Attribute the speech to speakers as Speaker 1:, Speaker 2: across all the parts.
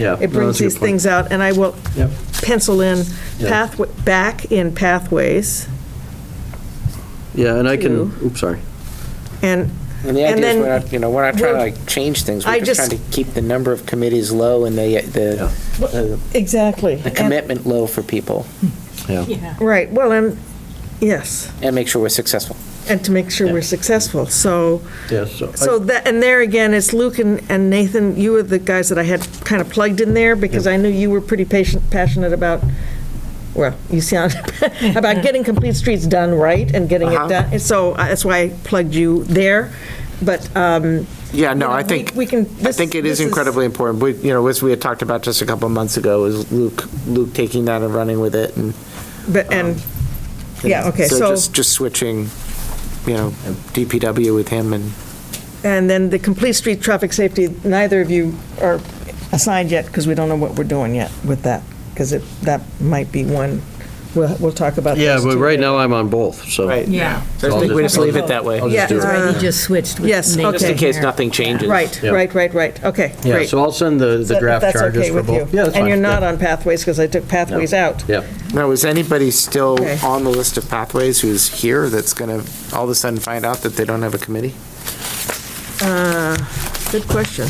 Speaker 1: Yeah,
Speaker 2: It
Speaker 1: no,
Speaker 2: brings
Speaker 1: that's a good
Speaker 2: these
Speaker 1: point.
Speaker 2: things out, and I will
Speaker 1: Yep.
Speaker 2: pencil in
Speaker 1: Yeah.
Speaker 2: pathway, back in pathways,
Speaker 1: Yeah, and I can,
Speaker 2: Two.
Speaker 1: oops, sorry.
Speaker 2: and,
Speaker 3: And the
Speaker 2: And
Speaker 3: idea is
Speaker 2: then
Speaker 3: we're not, you know, we're not trying to
Speaker 2: we'll-
Speaker 3: like change things.
Speaker 2: I
Speaker 3: We're just
Speaker 2: just-
Speaker 3: trying to keep the number of committees low and the, the, the-
Speaker 2: exactly.
Speaker 3: the commitment low for people
Speaker 1: Yeah,
Speaker 2: Right, well, and, yes,
Speaker 3: and make sure we're successful.
Speaker 2: and to make sure we're successful, so,
Speaker 1: yeah, so. I-
Speaker 2: so that, and there again, it's Luke and and Nathan, you were the guys that I had kind of plugged in there, because I knew you were pretty patient, passionate about, well, you sound, about getting complete streets done right, and getting it
Speaker 3: Uh-huh.
Speaker 2: done, And so uh, that's why I plugged you there, but, um,
Speaker 3: Yeah,
Speaker 2: You
Speaker 3: no,
Speaker 2: know,
Speaker 3: I
Speaker 2: we-
Speaker 3: think,
Speaker 2: we can-
Speaker 3: I
Speaker 2: this-
Speaker 3: think it
Speaker 2: this
Speaker 3: is
Speaker 2: is-
Speaker 3: incredibly important. We, you know, as we had talked about just a couple of months ago, is Luke, Luke taking that and running with it and.
Speaker 2: but, and, yeah, okay, so.
Speaker 3: Um, just- Just switching, you know, DPW with him and.
Speaker 2: And then the complete street traffic safety, neither of you are assigned yet, because we don't know what we're doing yet with that, because it, that might be one, we'll, we'll talk about
Speaker 1: Yeah,
Speaker 2: those
Speaker 1: but
Speaker 2: two.
Speaker 1: right now I'm on both, so.
Speaker 4: Yeah.
Speaker 3: So
Speaker 1: I'll
Speaker 3: I think we
Speaker 1: just-
Speaker 3: just leave it that way.
Speaker 1: I'll
Speaker 2: Yeah,
Speaker 1: just do it.
Speaker 2: uh,
Speaker 4: Right, you just switched with
Speaker 2: Yes,
Speaker 4: Nathan
Speaker 2: okay.
Speaker 3: Just in case
Speaker 4: here.
Speaker 3: nothing changes.
Speaker 2: Right,
Speaker 1: Yeah.
Speaker 2: right, right, right, okay,
Speaker 1: Yeah,
Speaker 2: great.
Speaker 1: so I'll send the, the
Speaker 2: So
Speaker 1: draft
Speaker 2: that's
Speaker 1: charges
Speaker 2: okay
Speaker 1: for
Speaker 2: with
Speaker 1: both.
Speaker 2: you.
Speaker 1: Yeah, that's
Speaker 2: And
Speaker 1: fine,
Speaker 2: you're not
Speaker 1: yeah.
Speaker 2: on pathways, because I took pathways out.
Speaker 1: Yeah,
Speaker 3: Now, is anybody still
Speaker 2: Okay.
Speaker 3: on the list of pathways who's here that's going to all of a sudden find out that they don't have a committee?
Speaker 2: Good question.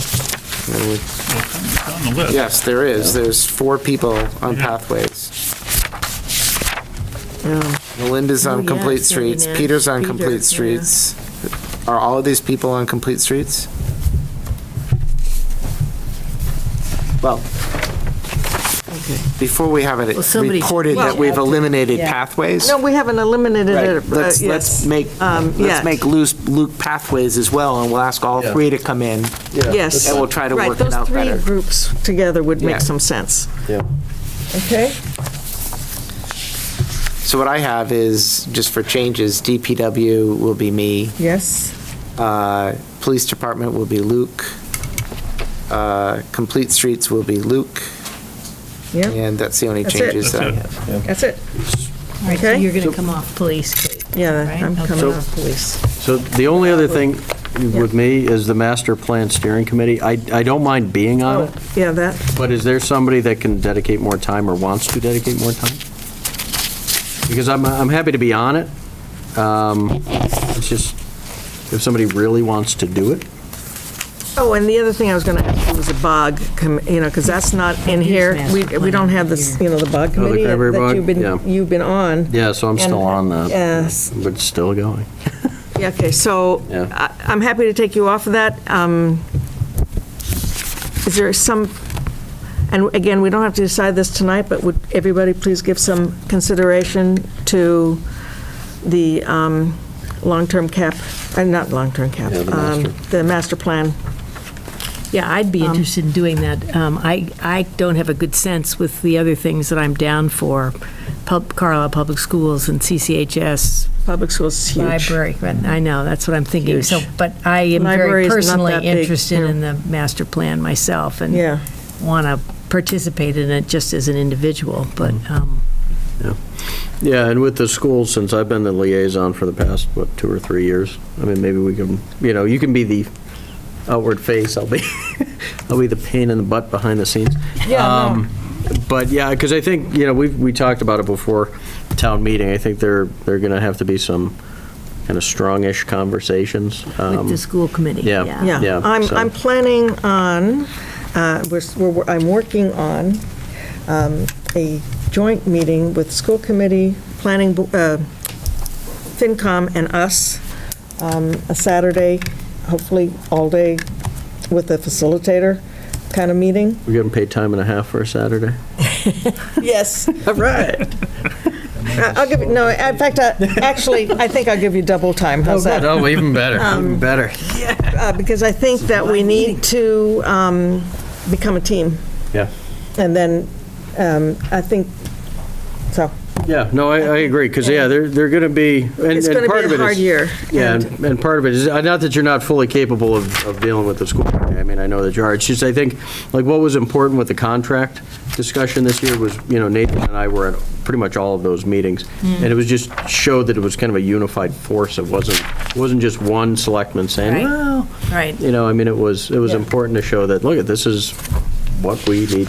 Speaker 5: on the list.
Speaker 3: Yes, there is. There's four people on pathways. Melinda's
Speaker 4: Oh,
Speaker 3: on
Speaker 4: yes,
Speaker 3: complete
Speaker 4: yeah,
Speaker 3: streets,
Speaker 4: Nancy,
Speaker 3: Peter's on
Speaker 4: Peter,
Speaker 3: complete
Speaker 4: yeah.
Speaker 3: streets. Are all of these people on complete streets? Well, before we have it
Speaker 4: Well, somebody-
Speaker 3: reported that
Speaker 4: Well-
Speaker 3: we've eliminated
Speaker 2: Yeah.
Speaker 3: pathways.
Speaker 2: No, we haven't eliminated
Speaker 3: Right.
Speaker 2: it. uh,
Speaker 3: Let's, let's
Speaker 2: yes.
Speaker 3: make,
Speaker 2: Um, yeah.
Speaker 3: let's make loose, Luke pathways as well, and we'll ask all
Speaker 1: Yeah.
Speaker 3: three to come in.
Speaker 2: Yes.
Speaker 3: And we'll try to
Speaker 2: Right,
Speaker 3: work it out better.
Speaker 2: Those three groups together would
Speaker 3: Yeah.
Speaker 2: make some sense.
Speaker 1: yeah.
Speaker 2: Okay?
Speaker 3: So what I have is, just for changes, DPW will be me,
Speaker 2: Yes.
Speaker 3: uh, Police Department will be Luke, uh, Complete Streets will be Luke,
Speaker 2: Yeah,
Speaker 3: and that's the only
Speaker 2: That's it.
Speaker 3: changes that I
Speaker 5: That's it.
Speaker 3: have.
Speaker 2: that's it.
Speaker 4: All right, so
Speaker 2: Okay.
Speaker 4: you're going to come off police, Kate,
Speaker 2: Yeah,
Speaker 4: right?
Speaker 2: I'm
Speaker 4: Okay.
Speaker 2: coming off police.
Speaker 1: So the only other thing with me is the master plan steering committee. I, I don't mind being on it,
Speaker 2: Oh, Yeah, that,
Speaker 1: but is there somebody that can dedicate more time or wants to dedicate more time? Because I'm, I'm happy to be on it. Um, It's just, if somebody really wants to do it,
Speaker 2: Oh, and the other thing I was going to ask you was a bog, com- you know, because that's not in here. We we don't have this, you know, the bog
Speaker 1: Oh, the
Speaker 2: committee
Speaker 1: cranberry
Speaker 2: that
Speaker 1: bog?
Speaker 2: you've
Speaker 1: Yeah.
Speaker 2: been, you've been on.
Speaker 1: yeah, so I'm still on that.
Speaker 2: And- Yes.
Speaker 1: But still going.
Speaker 2: Yeah, okay, so
Speaker 1: Yeah.
Speaker 2: I- I'm happy to take you off of that. Um, Is there some, and again, we don't have to decide this tonight, but would everybody please give some consideration to the um, long-term cap, uh, not long-term cap,
Speaker 1: Yeah, the
Speaker 2: um,
Speaker 1: master.
Speaker 2: the master plan?
Speaker 4: Yeah, I'd
Speaker 2: Um,
Speaker 4: be interested in doing that. Um, I, I don't have a good sense with the other things that I'm down for, Pub- Carlisle Public Schools and CCHS,
Speaker 2: Public schools is huge.
Speaker 4: library. But I know, that's what I'm thinking. So,
Speaker 2: Huge.
Speaker 4: but I am
Speaker 2: Library
Speaker 4: very
Speaker 2: is not
Speaker 4: personally
Speaker 2: that big,
Speaker 4: interested
Speaker 2: yeah.
Speaker 4: in the master plan myself
Speaker 2: Yeah.
Speaker 4: and want to participate in it just as an individual, but,
Speaker 3: Mm.
Speaker 4: um,
Speaker 1: Yeah, and with the schools, since I've been the liaison for the past, what, two or three years, I mean, maybe we can, you know, you can be the outward face, I'll be, I'll be the pain in the butt behind the scenes.
Speaker 2: Yeah, no.
Speaker 1: Um, But yeah, because I think, you know, we, we talked about it before town meeting, I think there, there are going to have to be some kind of strongish conversations.
Speaker 4: with
Speaker 1: Um,
Speaker 4: the school committee,
Speaker 1: yeah.
Speaker 4: yeah.
Speaker 1: Yeah,
Speaker 2: Yeah, I'm,
Speaker 1: so-
Speaker 2: I'm planning on, uh, we're, s- we're- I'm working on um, a joint meeting with school committee, planning, bo- uh, FinCom and us, um, a Saturday, hopefully all day, with a facilitator kind of meeting.
Speaker 1: We're getting paid time and a half for a Saturday?
Speaker 2: Yes.
Speaker 1: All right.
Speaker 2: Uh, I'll give, you no, in fact, I- actually, I think I'll give you double time, how's that?
Speaker 1: Oh, even better, even better.
Speaker 2: Uh, Because I think that we need to um, become a team.
Speaker 1: Yeah.
Speaker 2: And then, um, I think, so,
Speaker 1: Yeah, no, I, I agree, because, yeah, they're, they're going to be, and
Speaker 2: it's
Speaker 1: and
Speaker 2: going
Speaker 1: part
Speaker 2: to
Speaker 1: of
Speaker 2: be
Speaker 1: it
Speaker 2: a
Speaker 1: is.
Speaker 2: hard year.
Speaker 1: Yeah,
Speaker 2: And-
Speaker 1: and and part of it is, uh, not that you're not fully capable of, of dealing with the school, I mean, I know that you are, it's just, I think, like, what was important with the contract discussion this year was, you know, Nathan and I were at pretty much all of those meetings,
Speaker 2: Mm.
Speaker 1: and it was just, showed that it was kind of a unified force, it wasn't, wasn't just one selectman saying,
Speaker 4: Right.
Speaker 1: well,
Speaker 4: Right.
Speaker 1: you know, I mean, it was, it was important to show that, look, this is, what we need to